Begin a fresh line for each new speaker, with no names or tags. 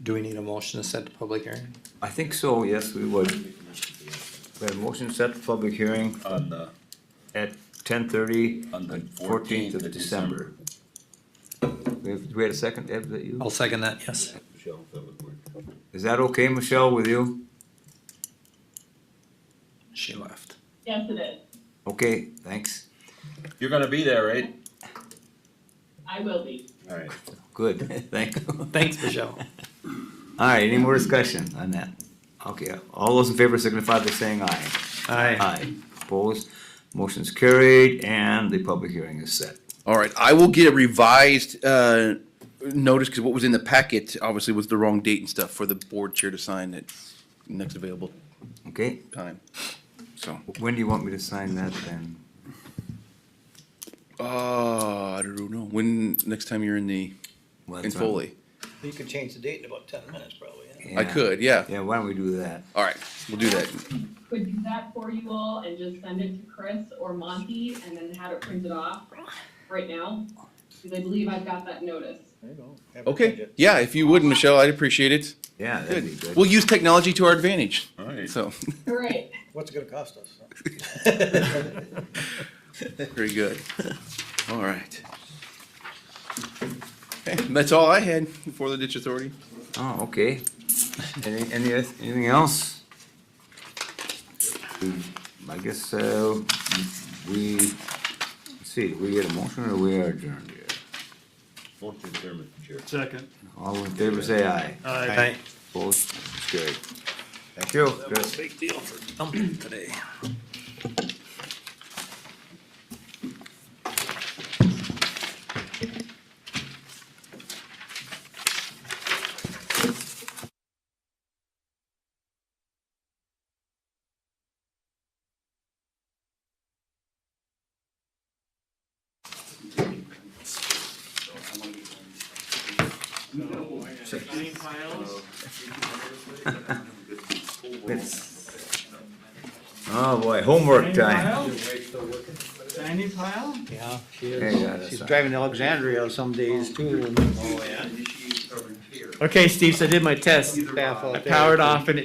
Do we need a motion to set the public hearing?
I think so, yes, we would. We have motion set for public hearing
on the,
at ten thirty,
on the
fourteenth of December. We have, we had a second, Deb, is that you?
I'll second that, yes.
Is that okay, Michelle, with you?
She left.
Yes, it is.
Okay, thanks,
You're gonna be there, right?
I will be.
Alright.
good, thank you.
Thanks, Michelle.
Alright, any more discussion on that? Okay, all those in favor signify by saying aye.
Aye.
Aye, opposed, motion's carried, and the public hearing is set.
All right, I will get a revised uh, notice, because what was in the packet obviously was the wrong date and stuff for the board chair to sign at next available
Okay,
time. So,
when do you want me to sign that then?
uh, I don't know, when, next time you're in the,
Well,
in
that's what-
Foley?
You could change the date in about ten minutes, probably.
I
yeah.
could, yeah,
Yeah, why don't we do that?
all right, we'll do that.
Could do that for you all and just send it to Chris or Monty and then have it printed off right now. Because I believe I've got that notice.
Okay, yeah, if you would, Michelle, I'd appreciate it.
Yeah, that'd be
Good.
good.
We'll use technology to our advantage,
Alright.
so,
All right.
What's it gonna cost us?
very good. All right. Okay, That's all I had for the ditch authority.
Oh, okay. Any, any, oth- anything else? I guess, uh, we, let's see, did we get a motion or we are adjourned here?
Motion to adjourn, Mr. Chair.
Second.
All in favor, say aye.
Aye.
Aye.
Opposed, it's carried. Thank you. Chris.
Big deal for dumping today.
Oh, boy, homework time.
Tiny pile?
Yeah, she
Hey, yeah,
is.
that's
She's
right.
driving to Alexandria some days too. and
Okay, Steve, so I did my test.
Staff out
I
there.
powered off and